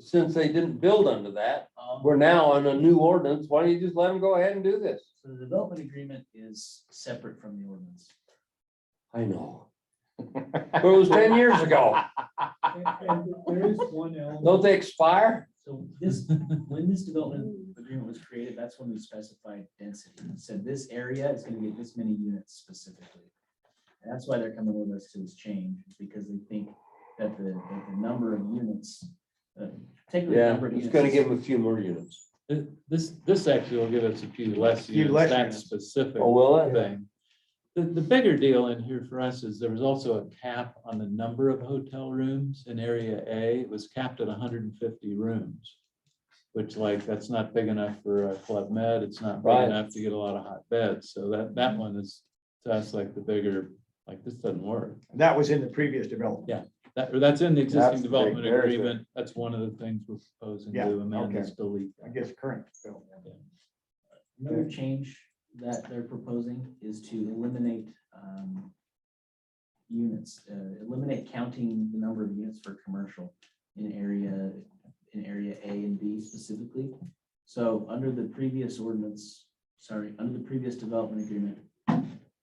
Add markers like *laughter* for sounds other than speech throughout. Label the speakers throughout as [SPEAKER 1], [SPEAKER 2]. [SPEAKER 1] since they didn't build under that,
[SPEAKER 2] Um,
[SPEAKER 1] we're now on a new ordinance, why don't you just let them go ahead and do this?
[SPEAKER 2] So the development agreement is separate from the ordinance.
[SPEAKER 1] I know. But it was ten years ago,
[SPEAKER 3] And- and There is one element.
[SPEAKER 1] don't they expire?
[SPEAKER 2] So this, when this development agreement was created, that's when we specified density. It Said this area is gonna get this many units specifically. And that's why they're coming with us to this change, because they think that the, that the number of units, uh, particularly. the
[SPEAKER 1] Yeah,
[SPEAKER 2] number of
[SPEAKER 1] it's
[SPEAKER 2] units
[SPEAKER 1] gonna
[SPEAKER 2] is-
[SPEAKER 1] give them a few more units.
[SPEAKER 4] Th- This, this actually will give us a few less
[SPEAKER 5] Few less
[SPEAKER 4] units, that
[SPEAKER 5] units.
[SPEAKER 4] specific
[SPEAKER 1] Oh, will it?
[SPEAKER 4] thing. The, the bigger deal in here for us is there was also a cap on the number of hotel rooms in Area A. It was capped at hundred and fifty rooms. Which like, that's not big enough for a Club Med, it's not big
[SPEAKER 1] Right.
[SPEAKER 4] enough to get a lot of hot beds, so that, that one is to us like the bigger, like this doesn't work.
[SPEAKER 5] That was in the previous development.
[SPEAKER 4] That, or that's in the
[SPEAKER 5] That's the
[SPEAKER 4] existing
[SPEAKER 5] big-
[SPEAKER 4] development
[SPEAKER 5] there's the-
[SPEAKER 4] agreement, that's one of the things we're proposing
[SPEAKER 5] Yeah,
[SPEAKER 4] to amend
[SPEAKER 5] okay.
[SPEAKER 4] is delete.
[SPEAKER 5] I guess current. bill.
[SPEAKER 2] Another change that they're proposing is to eliminate um, units, uh, eliminate counting the number of units for commercial in area, in area A and B specifically. So under the previous ordinance, sorry, under the previous development agreement,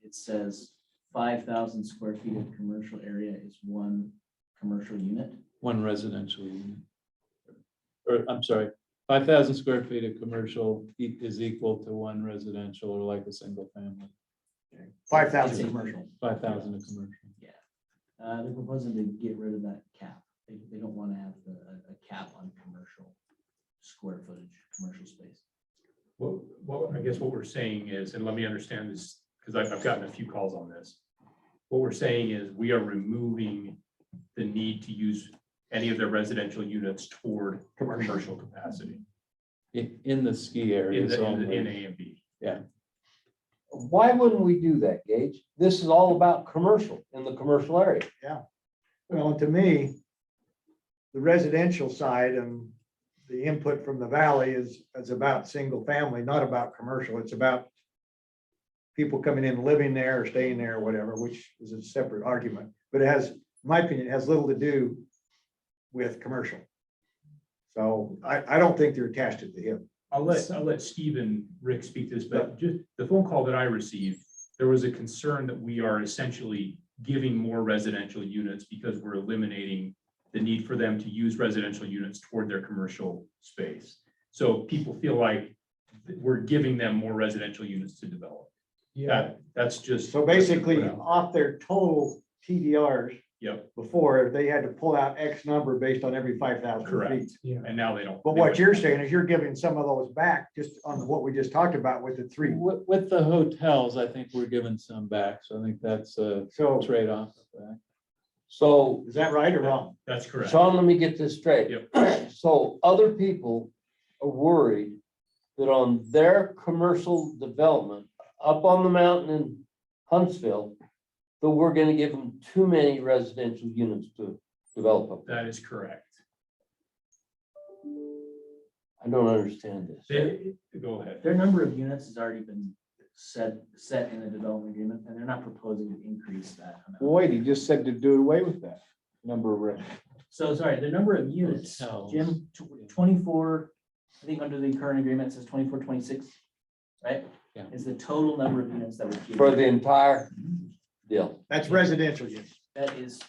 [SPEAKER 2] it says five thousand square feet of commercial area is one commercial unit.
[SPEAKER 4] one residential unit. Or, I'm sorry, five thousand square feet of commercial e- is equal to one residential or like a single family,
[SPEAKER 5] Five
[SPEAKER 2] It's
[SPEAKER 5] thousand
[SPEAKER 2] a
[SPEAKER 5] commercial.
[SPEAKER 4] five thousand of commercial.
[SPEAKER 2] Uh, they're proposing to get rid of that cap. They, they don't want to have the- a, a cap on commercial square footage, commercial space.
[SPEAKER 6] Well, well, I guess what we're saying is, and let me understand this, because I've, I've gotten a few calls on this. What we're saying is we are removing the need to use any of their residential units toward
[SPEAKER 5] Commercial.
[SPEAKER 6] commercial capacity
[SPEAKER 4] In, in the ski
[SPEAKER 6] in
[SPEAKER 4] areas
[SPEAKER 6] the, in the- in
[SPEAKER 4] only.
[SPEAKER 6] A and B.
[SPEAKER 1] Why wouldn't we do that, Gage? This is all about commercial, in the commercial area.
[SPEAKER 5] Well, to me, the residential side and the input from the valley is, is about single family, not about commercial. It's about people coming in, living there, or staying there, or whatever, which is a separate argument. But it has, in my opinion, it has little to do with commercial. So I, I don't think they're attached to the hip.
[SPEAKER 6] I'll let, I'll let Steve and Rick speak to this, but just the phone call that I received, there was a concern that we are essentially giving more residential units because we're eliminating the need for them to use residential units toward their commercial space. So people feel like th- we're giving them more residential units to develop. That, that's just.
[SPEAKER 5] So basically, off their total TDRs
[SPEAKER 6] Yep,
[SPEAKER 5] before, they had to pull out X number based on every five thousand
[SPEAKER 6] Correct.
[SPEAKER 5] feet.
[SPEAKER 6] and now they don't.
[SPEAKER 5] But what you're saying is you're giving some of those back just on what we just talked about with the three.
[SPEAKER 4] With, with the hotels, I think we're giving some back, so I think that's a
[SPEAKER 5] So
[SPEAKER 4] trade-off. of that.
[SPEAKER 1] So,
[SPEAKER 5] is that right or wrong?
[SPEAKER 6] That's correct.
[SPEAKER 1] Sean, let me get this straight. *clears throat* So other people are worried that on their commercial development up on the mountain in Huntsville, that we're gonna give them too many residential units to develop. up.
[SPEAKER 6] That is correct.
[SPEAKER 1] I don't understand this.
[SPEAKER 6] They- go ahead.
[SPEAKER 2] Their number of units has already been set, set in the development agreement, and they're not proposing to increase that. amount.
[SPEAKER 7] Wait, he just said to do away with that number of rooms.
[SPEAKER 2] So sorry, the number of units,
[SPEAKER 4] Hotels.
[SPEAKER 2] Jim, tw- twenty-four, I think under the current agreement it says 24, 26, right?
[SPEAKER 4] Yeah.
[SPEAKER 2] Is the total number of units that would. be-
[SPEAKER 1] For the entire deal.
[SPEAKER 5] That's residential use.
[SPEAKER 2] That is.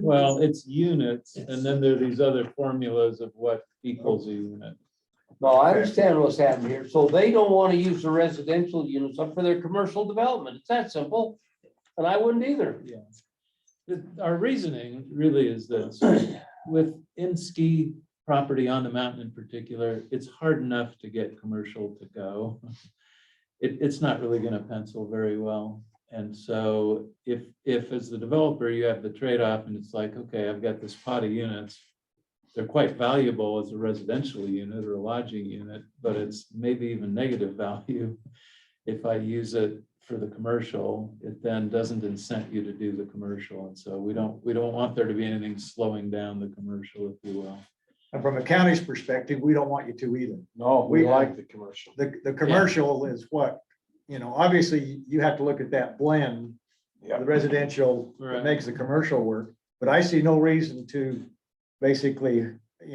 [SPEAKER 4] Well, it's units, and then there are these other formulas of what equals a unit.
[SPEAKER 1] No, I understand what's happening here. So they don't wanna use the residential units up for their commercial development. It's that simple. And I wouldn't either.
[SPEAKER 4] The- Our reasoning really is this, with in ski property on the mountain in particular, it's hard enough to get commercial to go. It, it's not really gonna pencil very well. And so if, if as the developer, you have the trade-off and it's like, okay, I've got this pot of units. They're quite valuable as a residential unit or a lodging unit, but it's maybe even negative *laughs* value. If I use it for the commercial, it then doesn't incent you to do the commercial. And so we don't, we don't want there to be anything slowing down the commercial, if you will.
[SPEAKER 5] And from a county's perspective, we don't want you to either.
[SPEAKER 7] No, we
[SPEAKER 5] We-
[SPEAKER 7] like the commercial.
[SPEAKER 5] The, the commercial is what, you know, obviously you have to look at that blend.
[SPEAKER 7] Yeah.
[SPEAKER 5] The residential
[SPEAKER 4] Right.
[SPEAKER 5] that makes the commercial work, but I see no reason to basically